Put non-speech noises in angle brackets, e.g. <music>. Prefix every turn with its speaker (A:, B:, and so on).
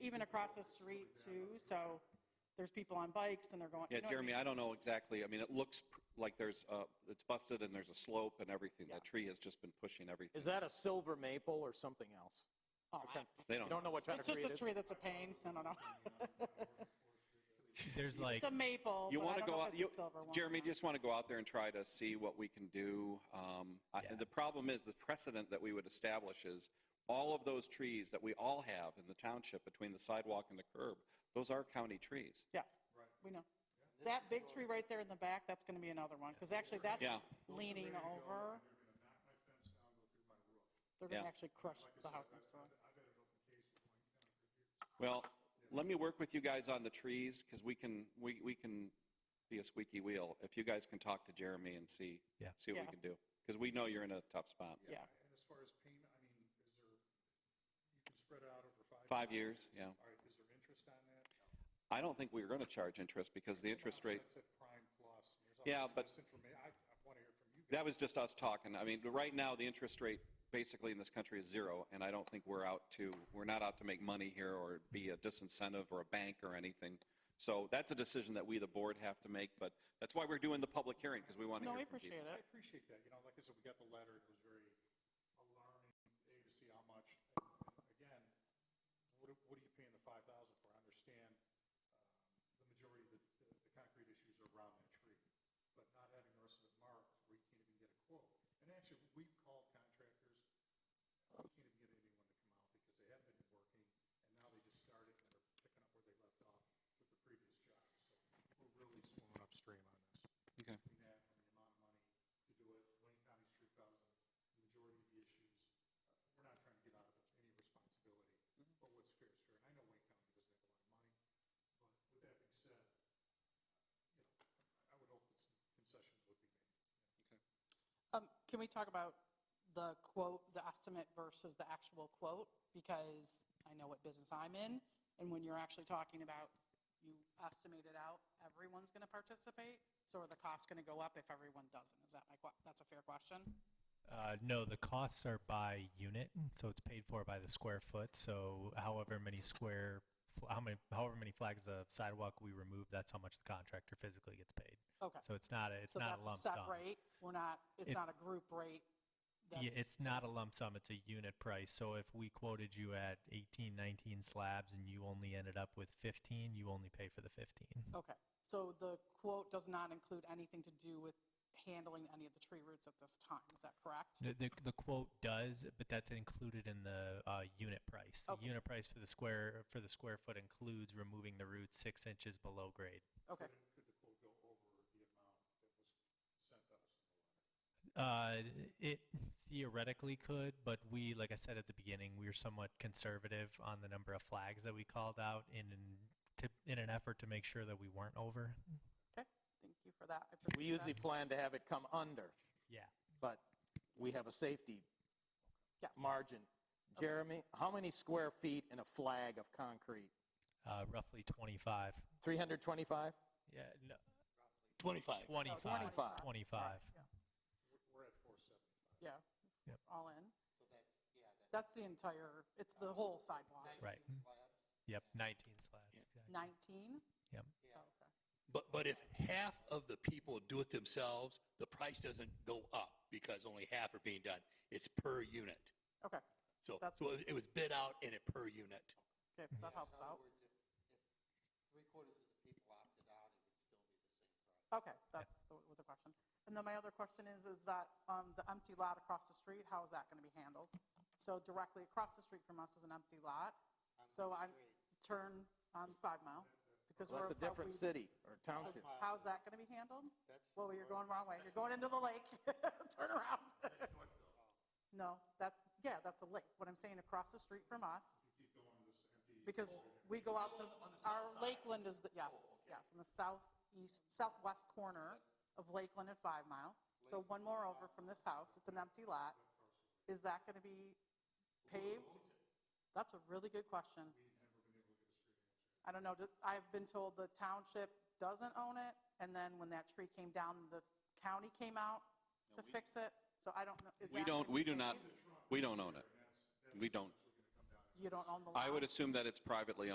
A: even across the street too, so there's people on bikes and they're going. you
B: Yeah,
A: know what I
B: Jeremy,
A: mean?
B: I don't know exactly. I mean, it looks pr- like there's, uh, it's busted and there's a slope and everything. That tree has just been pushing everything.
C: Is that a silver maple or something else?
A: Oh, I-
B: They
C: You
B: don't,
C: don't know what kind
A: It's
C: of
A: just
C: tree
A: a
C: it is?
A: tree that's a pain, I don't know.
D: There's like,
A: <laughs> It's a maple,
B: you
A: but I
B: want to
A: don't know
B: go
A: if
B: out,
A: it's
B: you,
A: a silver one. or
B: Jeremy,
A: not.
B: just want to go out there and try to see what we can do. Um, I-
D: Yeah.
B: The problem is the precedent that we would establish is all of those trees that we all have in the township between the sidewalk and the curb, those are county trees.
A: Yes, we know. That big tree right there in the back, that's going to be another one, because actually that's
B: Yeah.
A: leaning over. They're going to
B: Yeah.
A: actually crush the house next door.
B: Well, let me work with you guys on the trees because we can, we, we can be a squeaky wheel. If you guys can talk to Jeremy and see,
D: Yeah.
B: see what
A: Yeah.
B: we can do. Because we know you're in a tough spot.
A: Yeah.
E: And as far as payment, I mean, is there, you can spread it out over five?
B: Five years, yeah.
E: All right, is there interest on that?
B: I don't think we were going to charge interest because the interest rate,
E: That's at prime plus. There's all
B: Yeah,
E: sorts of
B: but-
E: misinforma- I, I want to hear from you
B: that
E: guys.
B: was just us talking. I mean, right now, the interest rate basically in this country is zero, and I don't think we're out to, we're not out to make money here or be a disincentive or a bank or anything. So that's a decision that we, the board, have to make, but that's why we're doing the public hearing, because we want to
A: No,
B: hear
A: we
B: from people.
A: appreciate
E: I
A: it.
E: appreciate that, you know, like I said, we got the letter, it was very alarming, A, to see how much, and and again, what are, what are you paying the five thousand for? I understand, um, the majority of the, the the concrete issues are around that tree, but not having the rest of it marked where you can't even get a quote. And actually, we called contractors, we can't even get anyone to come out because they haven't been working, and now they just started and they're picking up where they left off with the previous job, so we're really swimming upstream on this
B: Okay.
E: between that and the amount of money to do it, Wayne County's three thousand, the majority of the issues, uh, we're not trying to get out of any responsibility, but what's fair is fair, and I know Wayne County doesn't have a lot of money, but with that being said, you know, I- I would hope that uh, some concessions would be made.
A: Um, Can we talk about the quote, the estimate versus the actual quote? Because I know what business I'm in, and when you're actually talking about you estimate it out, everyone's going to participate, so are the costs going to go up if everyone doesn't? Is that my, que- that's a fair question?
D: uh, no, the costs are by unit, so it's paid for by the square foot. So however many square, fl- how many, however many flags of sidewalk we remove, that's how much the contractor physically gets paid.
A: Okay.
D: So it's not a, it's
A: So
D: not
A: that's
D: a lump
A: set
D: sum.
A: rate. We're not, it's
D: It-
A: not a group rate.
D: Yeah,
A: That's-
D: it's not a lump sum, it's a unit price. So if we quoted you at 18, 19 slabs and you only ended up with 15, you only pay for the 15.
A: Okay, so the quote does not include anything to do with handling any of the tree roots at this time, is that correct?
D: The, the, the quote does, but that's included in the uh, unit price. The
A: Okay.
D: unit price for the square for the square foot includes removing the roots six inches below grade.
A: Okay,
E: Could could the quote go over the amount that was sent us?
D: Uh, it theoretically could, but we, like I said at the beginning, we were somewhat conservative on the number of flags that we called out in an, to, in an effort to make sure that we weren't over.
A: okay, thank you for that. I
C: We
A: appreciate
C: usually
A: that.
C: plan to have it come under,
D: Yeah.
C: but we have a safety
A: Yes.
C: margin. Jeremy, how many square feet in a flag of concrete?
D: Uh, roughly 25.
C: 325?
D: Yeah. No,
F: 25.
D: 25.
A: Oh,
C: 25.
D: 25.
E: We're at four seventy.
A: Yeah,
D: Yep.
A: all in. That's the entire, it's the whole sidewalk.
D: Right. Yep. 19 slabs. Exactly.
A: 19?
D: Yep.
A: Oh, Okay.
F: But, but if half of the people do it themselves, the price doesn't go up because only half are being done. It's per unit.
A: Okay,
F: So,
A: That's-
F: so it was bid out in it per unit.
A: okay, that helps out. Okay, that's, that was a question. And then my other question is, is that um, the empty lot across the street, how is that going to be handled? So directly across the street from us is an empty lot, so I turn on Five Mile, because
C: Well,
A: we're.
C: That's a different
A: we-
C: city or
A: so
C: township.
A: How's that going to be handled? Well, you're going wrong way, you're going into the lake, <laughs> turn around. No, that's, yeah, that's a lake, what I'm saying, across the street from us. Because we go out, the our Lakeland is, the yes, yes, in the southeast, southwest corner of Lakeland and Five Mile. So one more over from this house, it's an empty lot. Is that going to be paved? That's a really good question. I don't know, just- I've been told the township doesn't own it, and then when that tree came down, the county came out to fix it, so I don't know. is that
B: We don't,
A: gonna
B: we
A: be
B: do not,
A: paved?
B: we don't own it. We don't.
A: You don't own the lot?
B: I would assume that it's privately owned.